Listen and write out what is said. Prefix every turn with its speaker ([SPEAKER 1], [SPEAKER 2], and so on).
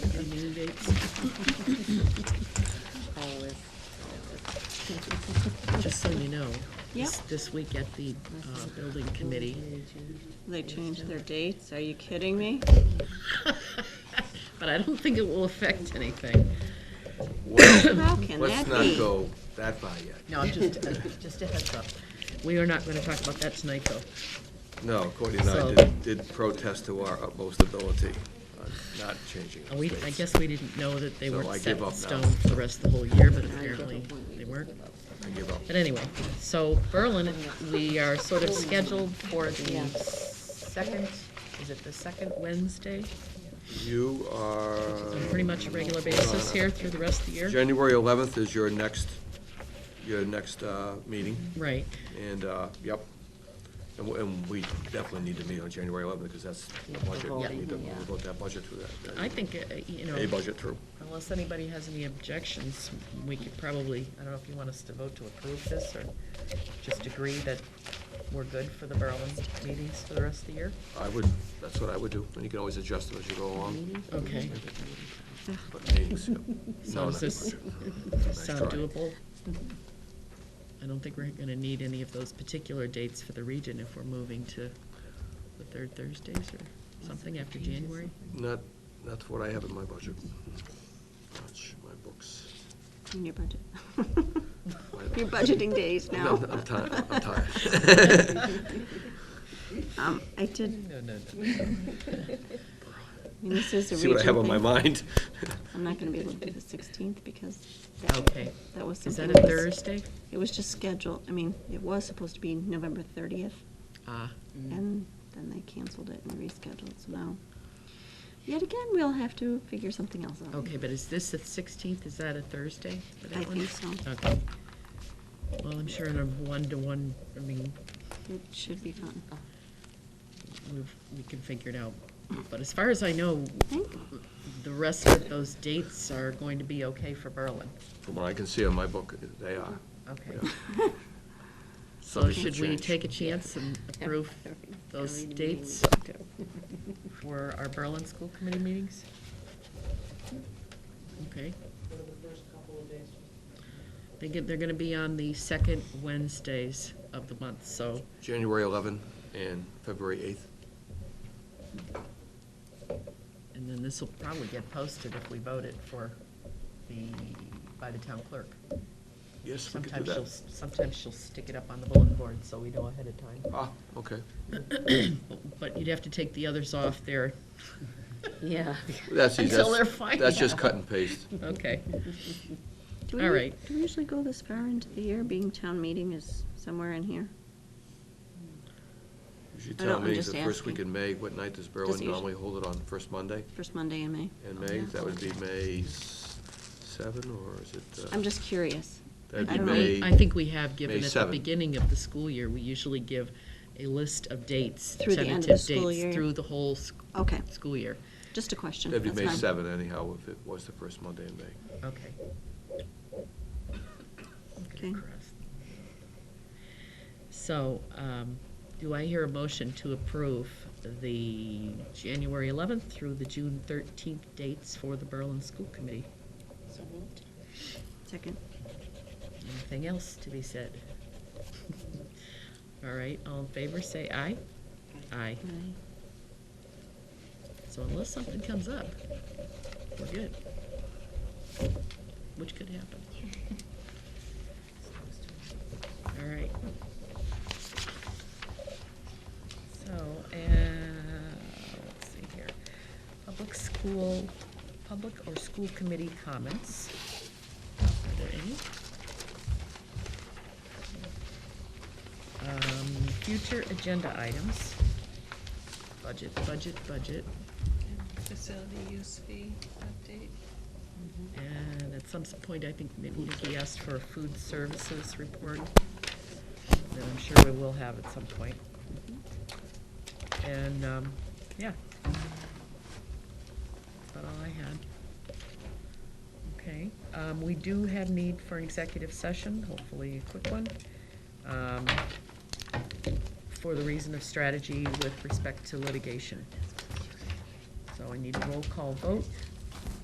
[SPEAKER 1] meeting dates.
[SPEAKER 2] Always.
[SPEAKER 1] Just so you know. this-
[SPEAKER 3] Yep.
[SPEAKER 1] This week at the uh, building committee,
[SPEAKER 3] They changed their dates, are you kidding me?
[SPEAKER 1] but I don't think it will affect anything.
[SPEAKER 4] Well,
[SPEAKER 3] How can that
[SPEAKER 4] Let's not
[SPEAKER 3] be?
[SPEAKER 4] go that far yet.
[SPEAKER 1] No, I'm just, uh, just a heads up. We are not going to talk about that tonight, though.
[SPEAKER 4] No, Cody and I
[SPEAKER 1] So-
[SPEAKER 4] did- did protest to our utmost ability on not changing
[SPEAKER 1] And
[SPEAKER 4] those
[SPEAKER 1] we,
[SPEAKER 4] dates.
[SPEAKER 1] I guess we didn't know that they
[SPEAKER 4] So
[SPEAKER 1] weren't
[SPEAKER 4] I
[SPEAKER 1] set
[SPEAKER 4] give
[SPEAKER 1] in
[SPEAKER 4] up now.
[SPEAKER 1] stone for the rest of the whole year, but apparently they weren't.
[SPEAKER 4] I give up.
[SPEAKER 1] But anyway, so Berlin, we are sort of scheduled for the second, is it the second Wednesday?
[SPEAKER 4] You
[SPEAKER 1] So
[SPEAKER 4] are,
[SPEAKER 1] pretty much a regular basis here through the rest of the year?
[SPEAKER 4] January 11th is your next, your next uh, meeting,
[SPEAKER 1] Right,
[SPEAKER 4] and, uh, yep. And we- And we definitely need to meet on January 11th, because that's the budget. We
[SPEAKER 2] voting,
[SPEAKER 4] need to
[SPEAKER 2] yeah.
[SPEAKER 4] vote that budget through that.
[SPEAKER 1] I think, uh, you know.
[SPEAKER 4] A budget through.
[SPEAKER 1] Unless anybody has any objections, we could probably, I don't know if you want us to vote to approve this or just agree that we're good for the Berlin meetings for the rest of the year?
[SPEAKER 4] I would, that's what I would do, and you can always adjust them as you go along.
[SPEAKER 1] Okay.
[SPEAKER 4] But meetings, yeah. No,
[SPEAKER 1] So does
[SPEAKER 4] not
[SPEAKER 1] this
[SPEAKER 4] budget.
[SPEAKER 1] sound
[SPEAKER 4] Nice try.
[SPEAKER 1] doable? I don't think we're gonna need any of those particular dates for the region if we're moving to the third Thursdays or something after January.
[SPEAKER 4] Not, not what I have in my budget. Watch my books.
[SPEAKER 3] In your budget.
[SPEAKER 4] My-
[SPEAKER 3] You're budgeting days
[SPEAKER 4] No,
[SPEAKER 3] now.
[SPEAKER 4] I'm tired, I'm tired.
[SPEAKER 3] Um, I did,
[SPEAKER 1] No, no, no.
[SPEAKER 3] I mean, this is a
[SPEAKER 4] See what I have
[SPEAKER 3] regional
[SPEAKER 4] on my
[SPEAKER 3] thing.
[SPEAKER 4] mind?
[SPEAKER 3] I'm not gonna be able to do the sixteenth because that,
[SPEAKER 1] Okay,
[SPEAKER 3] that was
[SPEAKER 1] is
[SPEAKER 3] something.
[SPEAKER 1] that a
[SPEAKER 3] that was-
[SPEAKER 1] Thursday?
[SPEAKER 3] It was just scheduled, I mean, it was supposed to be November thirtieth,
[SPEAKER 1] Ah,
[SPEAKER 3] and then they canceled it and rescheduled, so now. Yet again, we'll have to figure something else out.
[SPEAKER 1] okay, but is this the sixteenth, is that a Thursday? for that
[SPEAKER 3] I
[SPEAKER 1] one?
[SPEAKER 3] think so.
[SPEAKER 1] Okay. Well, I'm sure in a one-to-one, I mean,
[SPEAKER 3] It should be fun.
[SPEAKER 1] we've, we can figure it out. But as far as I know,
[SPEAKER 3] Thank
[SPEAKER 1] the rest of those dates are going to be okay for Berlin.
[SPEAKER 4] From what I can see on my book, they are.
[SPEAKER 1] Okay.
[SPEAKER 4] Yeah.
[SPEAKER 1] So
[SPEAKER 4] Something
[SPEAKER 1] should we
[SPEAKER 4] changed.
[SPEAKER 1] take a chance and approve those dates for our Berlin school committee meetings? Okay. They get, they're gonna be on the second Wednesdays of the month, so
[SPEAKER 4] January 11 and February 8th.
[SPEAKER 1] And then this will probably get posted if we vote it for the, by the town clerk.
[SPEAKER 4] Yes, we could
[SPEAKER 1] Sometimes
[SPEAKER 4] do
[SPEAKER 1] she'll,
[SPEAKER 4] that.
[SPEAKER 1] s- sometimes she'll stick it up on the bulletin board, so we know ahead of time.
[SPEAKER 4] Ah, okay.
[SPEAKER 1] But you'd have to take the others off there.
[SPEAKER 2] Yeah.
[SPEAKER 4] That's easy.
[SPEAKER 1] Until
[SPEAKER 4] That's-
[SPEAKER 1] they're fine.
[SPEAKER 4] That's just cut and paste.
[SPEAKER 1] Okay,
[SPEAKER 3] Do we-
[SPEAKER 1] All right.
[SPEAKER 3] Do we usually go this far into the year, being town meeting is somewhere in here?
[SPEAKER 4] Usually
[SPEAKER 3] I don't-
[SPEAKER 4] town
[SPEAKER 3] I'm
[SPEAKER 4] meetings
[SPEAKER 3] just
[SPEAKER 4] the first
[SPEAKER 3] asking.
[SPEAKER 4] week in May. What night does
[SPEAKER 3] Does
[SPEAKER 4] Berlin
[SPEAKER 3] it usu-
[SPEAKER 4] normally hold it on? First Monday
[SPEAKER 3] First Monday in May?
[SPEAKER 4] in
[SPEAKER 3] Oh,
[SPEAKER 4] May?
[SPEAKER 3] yeah.
[SPEAKER 4] That would be May s- 7 or is it? uh,
[SPEAKER 3] I'm just curious.
[SPEAKER 4] That'd
[SPEAKER 3] I
[SPEAKER 4] be
[SPEAKER 3] don't know.
[SPEAKER 4] May.
[SPEAKER 1] I think we have given
[SPEAKER 4] May
[SPEAKER 1] at the
[SPEAKER 4] 7.
[SPEAKER 1] beginning of the school year, we usually give a list of dates,
[SPEAKER 3] Through the end of
[SPEAKER 1] tentative
[SPEAKER 3] the
[SPEAKER 1] dates,
[SPEAKER 3] school year.
[SPEAKER 1] through the whole sc-
[SPEAKER 3] Okay,
[SPEAKER 1] school year.
[SPEAKER 3] just a question.
[SPEAKER 4] That'd be
[SPEAKER 3] that's
[SPEAKER 4] May eh?
[SPEAKER 3] fine.
[SPEAKER 4] 7 anyhow, if it was the first Monday in May.
[SPEAKER 1] Okay.
[SPEAKER 3] Okay.
[SPEAKER 1] So, um, do I hear a motion to approve the January 11th through the June 13th dates for the Berlin School Committee?
[SPEAKER 3] Second.
[SPEAKER 1] Anything else to be said? All right, all in favor, say aye. Aye.
[SPEAKER 3] Aye.
[SPEAKER 1] So unless something comes up, we're good. Which could happen. All right. So, uh, let's see here. Public school, public or school committee comments. Are there any? Um, future agenda items. Budget, budget, budget.
[SPEAKER 5] Facility use fee update.
[SPEAKER 1] And at some point, I think maybe Nikki asked for a food services report that I'm sure we will have at some point. And, um, yeah. That's about all I had. Okay, um, we do have need for an executive session, hopefully a quick one. um, For the reason of strategy with respect to litigation. So I need a roll call vote.